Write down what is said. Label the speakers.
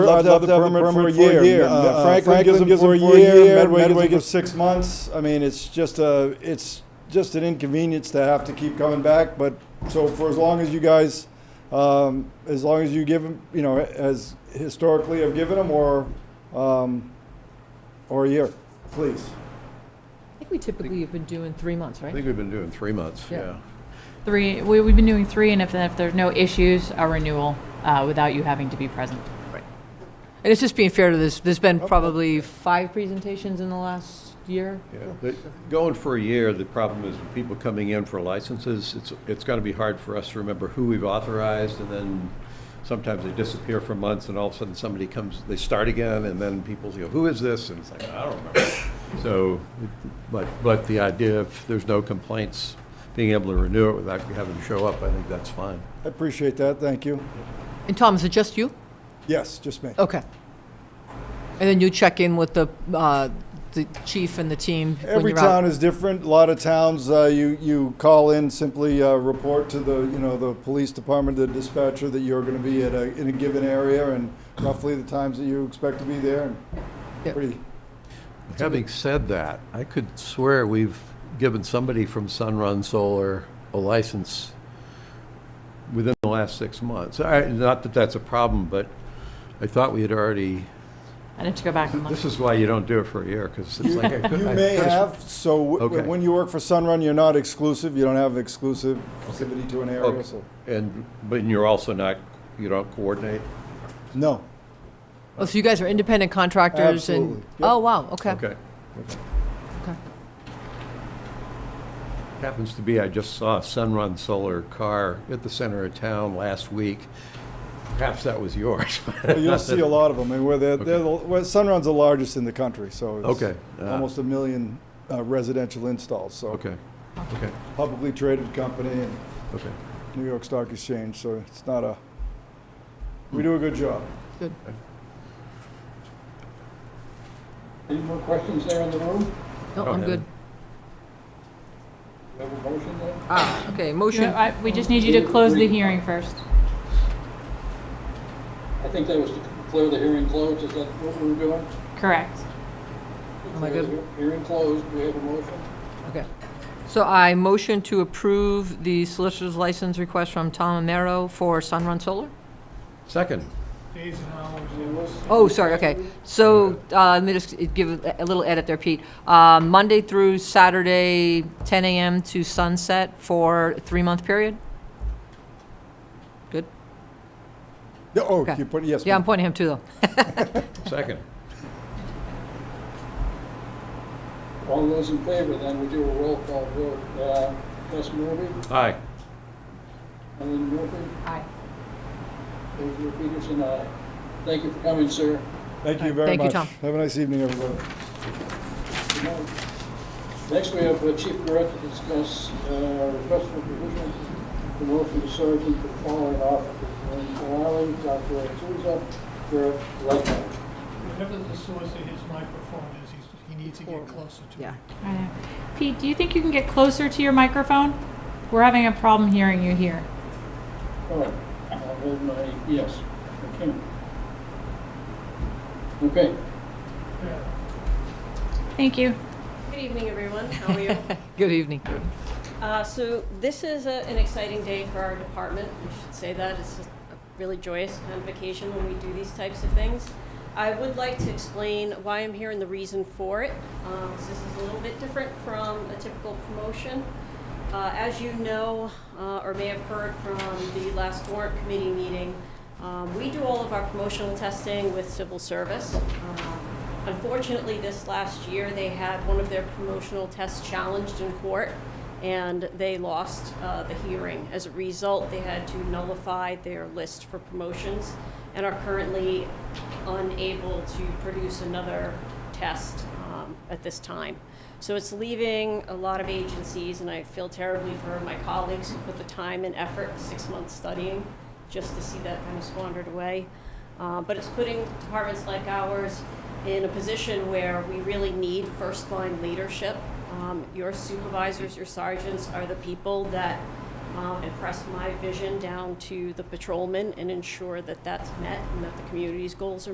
Speaker 1: Left out the permit for a year. Uh, Franklin gives them for a year, Medway gives them for six months. I mean, it's just a, it's just an inconvenience to have to keep coming back, but, so for as long as you guys, um, as long as you give them, you know, as historically have given them, or, um, or a year, please.
Speaker 2: I think we typically have been doing three months,
Speaker 3: I
Speaker 2: right?
Speaker 3: think we've been doing three months,
Speaker 2: Yeah.
Speaker 3: yeah.
Speaker 4: Three, we, we've been doing three, and if, if there's no issues, a renewal, uh, without you having to be present.
Speaker 2: And it's just being fair to this, there's been probably five presentations in the last year.
Speaker 3: Yeah, but Going for a year, the problem is with people coming in for licenses, it's, it's gonna be hard for us to remember who we've authorized, and then sometimes they disappear for months, and all of a sudden somebody comes, they start again, and then people go, who is this? And it's like, I don't remember. So, but, but the idea of there's no complaints, being able to renew it without having to show up, I think that's fine.
Speaker 1: I appreciate that, thank you.
Speaker 2: And Tom, is it just you?
Speaker 1: Yes, just me.
Speaker 2: Okay. And then you check in with the, uh, the chief and the team when
Speaker 1: Every
Speaker 2: you're out?
Speaker 1: town is different. A lot of towns, uh, you, you call in, simply uh, report to the, you know, the police department, the dispatcher, that you're going to be at a, in a given area and roughly the times that you expect to be there.
Speaker 2: Yep.
Speaker 1: Pretty,
Speaker 3: Having said that, I could swear we've given somebody from Sunrun Solar a license within the last six months. I- Not that that's a problem, but I thought we had already,
Speaker 4: I need to go back and look.
Speaker 3: this is why you don't do it for a year, because it's like. I could-
Speaker 1: You
Speaker 3: I
Speaker 1: may
Speaker 3: could've-
Speaker 1: have, so w-
Speaker 3: Okay.
Speaker 1: when you work for Sunrun, you're not exclusive. You don't have exclusivity to an area,
Speaker 3: Okay.
Speaker 1: so,
Speaker 3: And, but you're also not, you don't coordinate?
Speaker 1: no.
Speaker 2: Oh, so you guys are independent contractors
Speaker 1: Absolutely.
Speaker 2: and?
Speaker 1: Yep.
Speaker 2: Oh, wow, okay.
Speaker 3: Okay.
Speaker 2: Okay.
Speaker 3: Happens to be, I just saw a Sunrun Solar car at the center of town last week. Perhaps that was yours.
Speaker 1: But You'll see a lot of them. And where they're, they're, the- well, Sunrun's the largest in the country, so
Speaker 3: Okay.
Speaker 1: it's
Speaker 3: Uh,
Speaker 1: almost a million uh, residential installs, so.
Speaker 3: Okay, okay,
Speaker 1: Publicly traded company and
Speaker 3: okay.
Speaker 1: New York Stock Exchange, so it's not a,
Speaker 2: Hmm.
Speaker 1: we do a good job.
Speaker 2: Good.
Speaker 5: Any more questions there in the room?
Speaker 2: No,
Speaker 3: Oh,
Speaker 2: I'm
Speaker 3: yeah.
Speaker 2: good.
Speaker 5: We have a motion there?
Speaker 2: Ah, okay,
Speaker 4: You know,
Speaker 2: motion,
Speaker 4: I- We just need you to close the hearing first.
Speaker 5: I think that was to declare the hearing closed, is that what we were doing?
Speaker 4: Correct.
Speaker 2: Am I good?
Speaker 5: Declare the Hearing closed, we have a motion?
Speaker 2: okay. So I motion to approve the solicitor's license request from Tom Amaro for Sunrun Solar?
Speaker 3: Second,
Speaker 2: Oh, sorry, okay. So, uh, let me just give a a little edit there, Pete. Uh, Monday through Saturday, 10 AM to sunset for a three-month period? Good?
Speaker 1: Yeah, Oh,
Speaker 2: Okay.
Speaker 1: you put, yes,
Speaker 2: Yeah, I'm
Speaker 1: ma'am.
Speaker 2: pointing him too, though.
Speaker 3: second.
Speaker 5: All those in favor, then we do a roll call vote. Uh, Wes Morby,
Speaker 3: Aye.
Speaker 5: Eileen Murphy,
Speaker 2: Aye.
Speaker 5: Andrew Peterson, aye. Thank you for coming, sir.
Speaker 1: thank you very
Speaker 2: Thank you,
Speaker 1: much.
Speaker 2: Tom.
Speaker 1: Have a nice evening, everybody.
Speaker 5: Good night. Next, we have uh, Chief Garrett to discuss uh, request for provision for Wilson Surgeon for the following officers. Lynn Ferrari, Dr. Souza, Garrett Lightfoot.
Speaker 6: Whatever the source of his microphone is, he's, he needs to get closer to it.
Speaker 2: Yeah.
Speaker 4: I know. Pete, do you think you can get closer to your microphone? We're having a problem hearing you here.
Speaker 5: Oh, I'll hold my, yes, I can. Okay,
Speaker 4: Thank you.
Speaker 7: Good evening, everyone. How are you?
Speaker 2: Good evening.
Speaker 7: Uh, So this is a- an exciting day for our department. We should say that. It's a really joyous kind of vacation when we do these types of things. I would like to explain why I'm here and the reason for it. Um, so This is a little bit different from a typical promotion. Uh, As you know, uh, or may have heard from the last warrant committee meeting, um, we do all of our promotional testing with civil service. Um, Unfortunately, this last year, they had one of their promotional tests challenged in court, and they lost uh, the hearing. As a result, they had to nullify their list for promotions and are currently unable to produce another test um, at this time. So it's leaving a lot of agencies, and I feel terribly for my colleagues who put the time and effort, six months studying, just to see that kind of squandered away. Uh, but it's putting departments like ours in a position where we really need first line leadership. Um, your supervisors, your sergeants are the people that um, impress my vision down to the patrolmen and ensure that that's met and that the community's goals are.